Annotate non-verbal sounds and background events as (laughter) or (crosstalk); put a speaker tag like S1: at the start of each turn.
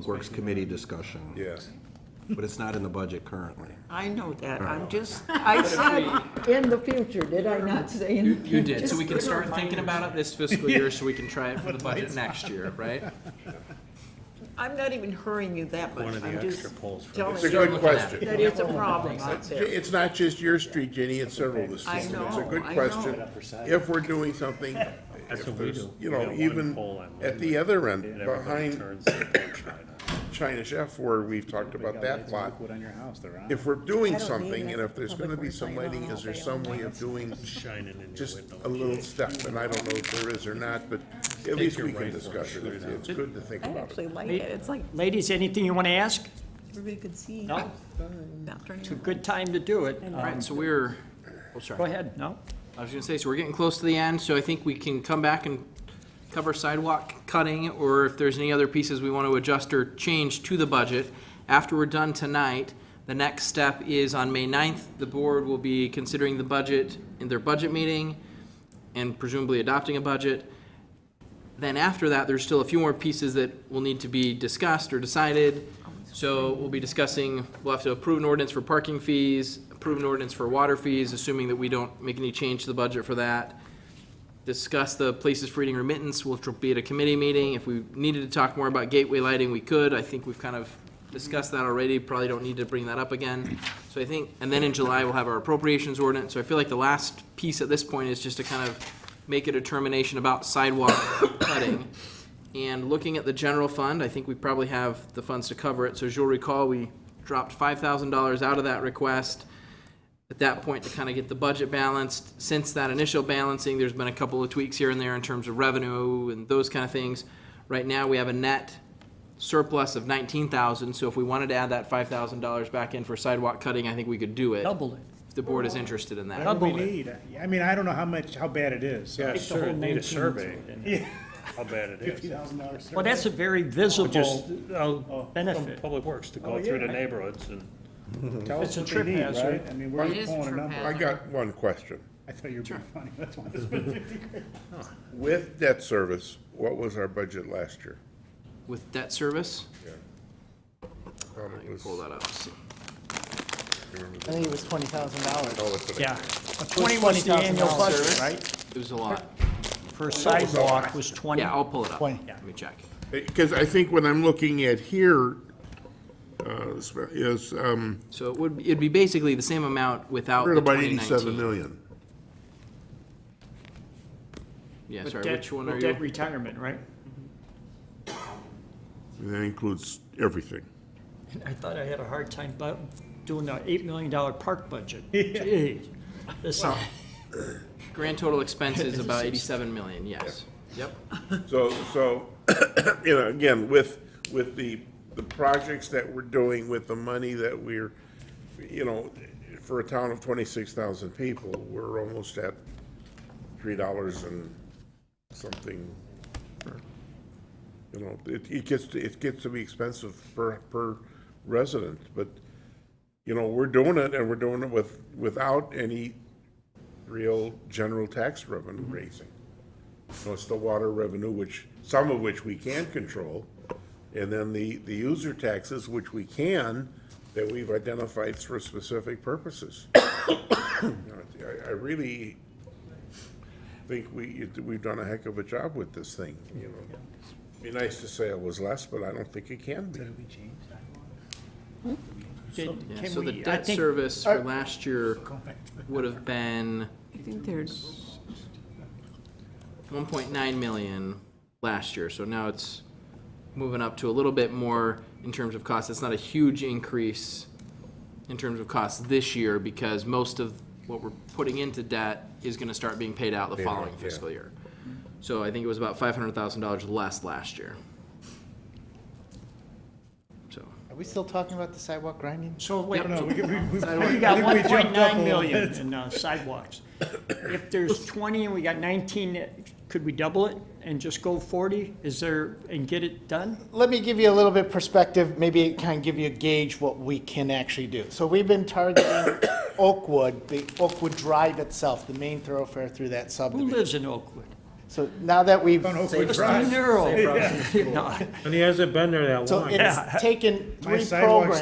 S1: Public Works Committee discussion.
S2: Yes.
S1: But it's not in the budget currently.
S3: I know that, I'm (laughs) just, I said in the future, did I not say in
S4: You,
S3: the future?
S4: you did, so we can start thinking about it this fiscal year, so we can try it for the budget next year, right?
S3: I'm not even hurrying you that much,
S5: One of the
S3: I'm just
S5: extra polls for
S3: telling
S2: It's a
S3: you
S2: good question.
S3: that it's a problem out there.
S2: It's not just your street, Jenny, it's several of the
S3: I
S2: streets. and It's a
S3: know,
S2: good
S3: I
S2: question.
S3: know.
S2: If we're doing
S6: (laughs)
S2: something,
S5: That's
S2: if
S5: what we
S2: there's,
S5: do.
S2: you
S5: We
S2: know,
S5: got one poll
S2: even
S5: on
S2: at
S5: one
S2: the other end,
S5: And everybody
S2: behind
S5: turns their attention on it.
S2: China Chef, where we've talked about that lot,
S7: on your house, they're on.
S2: if we're doing
S6: I don't need
S2: something,
S6: it.
S2: and if there's gonna be
S6: Public
S2: some
S6: works, I
S2: lighting,
S6: know.
S2: is there some way of doing
S5: shining in your
S2: just
S5: window.
S2: a little step? And I don't know if there is or not, but at least we can discuss it. It's it's good to think
S6: I
S2: about it.
S6: actually like it, it's like,
S8: Ladies, anything you want to ask?
S6: everybody could see.
S8: No?
S6: Not during
S8: It's
S6: the-
S8: a (laughs) good time to do it. Um,
S4: All right, so we're, oh,
S8: Go
S4: sorry.
S8: ahead, no?
S4: I was gonna say, so we're getting close to the end, so I think we can come back and cover sidewalk cutting, or if there's any other pieces we want to adjust or change to the budget. After we're done tonight, the next step is on May 9th, the board will be considering the budget in their budget meeting and presumably adopting a budget. Then after that, there's still a few more pieces that will need to be discussed or decided. So we'll be discussing, we'll have to approve an ordinance for parking fees, approve an ordinance for water fees, assuming that we don't make any change to the budget for that. Discuss the places for eating remittance, which will be at a committee meeting. If we needed to talk more about gateway lighting, we could. I think we've kind of discussed that already, probably don't need to bring that up again. So I think, and then in July, we'll have our appropriations ordinance. So I feel like the last piece at this point is just to kind of make a determination about sidewalk (coughs) cutting. And looking at the general fund, I think we probably have the funds to cover it. So as you'll recall, we dropped five thousand dollars out of that request at that point to kind of get the budget balanced. Since that initial balancing, there's been a couple of tweaks here and there in terms of revenue and those kind of things. Right now, we have a net surplus of nineteen thousand, so if we wanted to add that five thousand dollars back in for sidewalk cutting, I think we could do it.
S8: Double it.
S4: If the board is interested in that.
S7: What do we
S8: Double it.
S7: need? I mean, I don't know how much, how bad it is.
S5: Yeah,
S7: (laughs)
S5: sure, need a
S7: 19
S5: survey, and how bad (laughs) it
S7: Fifty
S5: is.
S7: thousand dollars.
S8: Well, that's a very
S5: Just,
S8: visible,
S5: uh, from
S8: benefit.
S5: Public Works to
S7: Oh,
S5: go through the
S7: yeah.
S5: neighborhoods and.
S7: Tell
S8: it's
S7: us
S8: a
S7: what they
S8: trip
S7: need,
S8: hazard.
S7: right? I mean, we're
S3: It is
S7: just pulling a
S3: trip
S7: number.
S3: hazard.
S2: I got one question.
S7: I thought you were being funny,
S8: (laughs)
S7: that's why I spent fifty grand.
S2: With debt service, what was our budget last year?
S4: With debt service,
S2: Um, it was-
S4: pull that up.
S9: I think it was twenty thousand dollars.
S2: oh, it's an-
S8: yeah. Twenty was the annual
S9: $20,000
S8: budget, right?
S4: It was a lot.
S8: For sidewalk was twenty.
S4: Yeah, I'll pull it up.
S9: Twenty.
S4: Let me check.
S2: Because I think what I'm looking at here uh, is, um,
S4: So it would, it'd be basically the same amount without
S2: we're
S4: the
S2: at about
S4: Oh, twenty
S2: eighty-seven
S4: nineteen.
S2: million.
S4: Yeah,
S8: With
S4: sorry,
S8: debt-
S4: which one
S8: with
S4: are
S8: debt
S4: you?
S8: retirement, right?
S2: And That includes everything.
S8: I thought I had a hard time bu- doing the eight million dollar park budget. Jeez. This- (laughs)
S4: Grand total expense is about eighty-seven million, yes. Yep.
S8: Uh,
S2: So, so, (coughs) you know, again, with, with the, the projects that we're doing, with the money that we're, you know, for a town of twenty-six thousand people, we're almost at three dollars and something. You know, it, it gets, to- it gets to be expensive per, per resident, but, you know, we're doing it and we're doing it with, without any real general tax revenue raising. So it's the water revenue, which, some of which we can control, and then the, the user taxes, which we can, that we've identified for specific purposes. (coughs) You know, I, I really think we, we've done a heck of a job with this thing, you know. Be nice to say it was less, but I don't think it can be.
S8: Can
S4: Yeah,
S8: can
S4: so the
S8: we- I
S4: debt
S8: think-
S4: service for last year would have been
S6: I think they're,
S4: one point nine million last year, so now it's moving up to a little bit more in terms of cost. It's not a huge increase in terms of cost this year because most of what we're putting into debt is gonna start being paid out the
S2: out,
S4: following
S2: yeah.
S4: fiscal year. So I think it was about five hundred thousand dollars less last year. So,
S9: Are we still talking about the sidewalk grinding?
S8: So wait,
S4: Yep.
S8: (laughs) we got one point nine million in uh, sidewalks. If there's twenty and we got nineteen, could we double it and just go forty? Is there, and get it done?
S9: Let me give you a little bit perspective, maybe it kind of give you a gauge what we can actually do. So we've been targeting Oakwood, the Oakwood Drive itself, the main thoroughfare through that
S8: Who
S9: subdivision.
S8: lives in Oakwood?
S7: So now that we've,
S8: Don't hope we
S10: Just
S8: try.
S10: a neural. No.
S8: (laughs)
S5: And he hasn't been there that
S7: so
S5: long.
S7: it's taken
S8: My (laughs)
S7: three
S8: sidewalks
S7: programs.